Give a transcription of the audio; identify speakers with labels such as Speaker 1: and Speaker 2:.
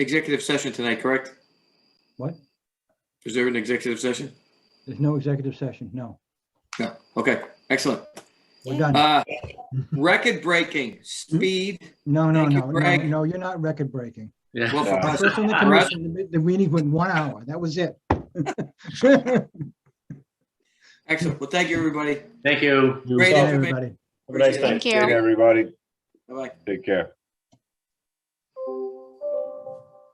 Speaker 1: executive session tonight, correct?
Speaker 2: What?
Speaker 1: Is there an executive session?
Speaker 2: There's no executive session, no.
Speaker 1: No. Okay, excellent.
Speaker 2: We're done.
Speaker 1: Uh, record breaking speed.
Speaker 2: No, no,
Speaker 1: thank you,
Speaker 2: no, no,
Speaker 1: Greg.
Speaker 2: no, you're not record breaking.
Speaker 1: Well, for us,
Speaker 2: First on the
Speaker 1: for us,
Speaker 2: commission, the- the meeting went one hour, that was it.
Speaker 1: excellent. Well, thank you, everybody.
Speaker 3: Thank you.
Speaker 1: Great
Speaker 2: Bye,
Speaker 1: information.
Speaker 2: everybody.
Speaker 4: Have a nice
Speaker 1: Appreciate it.
Speaker 4: night.
Speaker 5: Thank you.
Speaker 4: Everybody,
Speaker 1: Bye-bye.
Speaker 4: take care.